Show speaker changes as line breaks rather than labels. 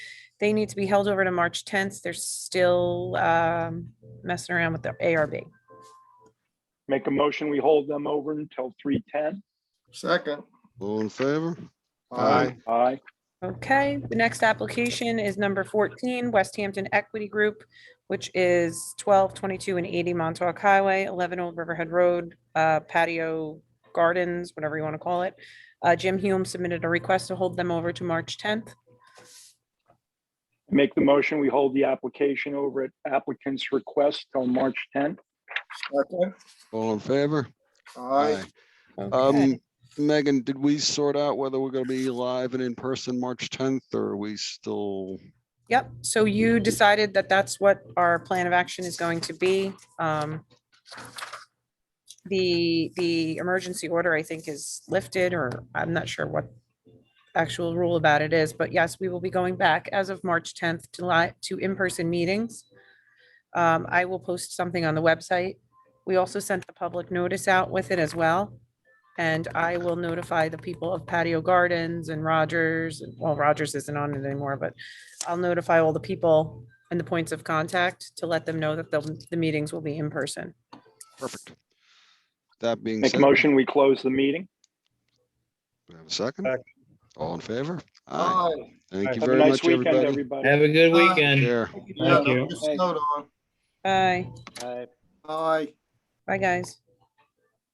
They need to be held over to March tenth. They're still um, messing around with their ARB.
Make a motion, we hold them over until three ten.
Second.
All in favor?
Aye.
Aye.
Okay, the next application is number fourteen, West Hampton Equity Group, which is twelve twenty-two and eighty Montauk Highway, eleven Old Riverhead Road, uh, patio gardens, whatever you want to call it. Uh, Jim Hume submitted a request to hold them over to March tenth.
Make the motion, we hold the application over at applicant's request till March tenth.
Second.
All in favor?
Aye.
Um, Megan, did we sort out whether we're gonna be live and in person March tenth, or are we still?
Yep, so you decided that that's what our plan of action is going to be. Um, The, the emergency order, I think, is lifted, or I'm not sure what actual rule about it is, but yes, we will be going back as of March 10th to live, to in-person meetings. Um, I will post something on the website. We also sent the public notice out with it as well. And I will notify the people of patio gardens and Rogers, well, Rogers isn't on it anymore, but I'll notify all the people and the points of contact to let them know that the, the meetings will be in person.
Perfect. That being
Make a
said,
motion, we close the meeting.
we have a second?
Second.
All in favor? Aye.
Aye.
Thank you
Have a
very
nice
much,
weekend, everybody.
everybody.
Have a good
Aye.
weekend.
Care.
Yeah,
you.
don't get snowed on.
Bye,
Aye.
bye, guys.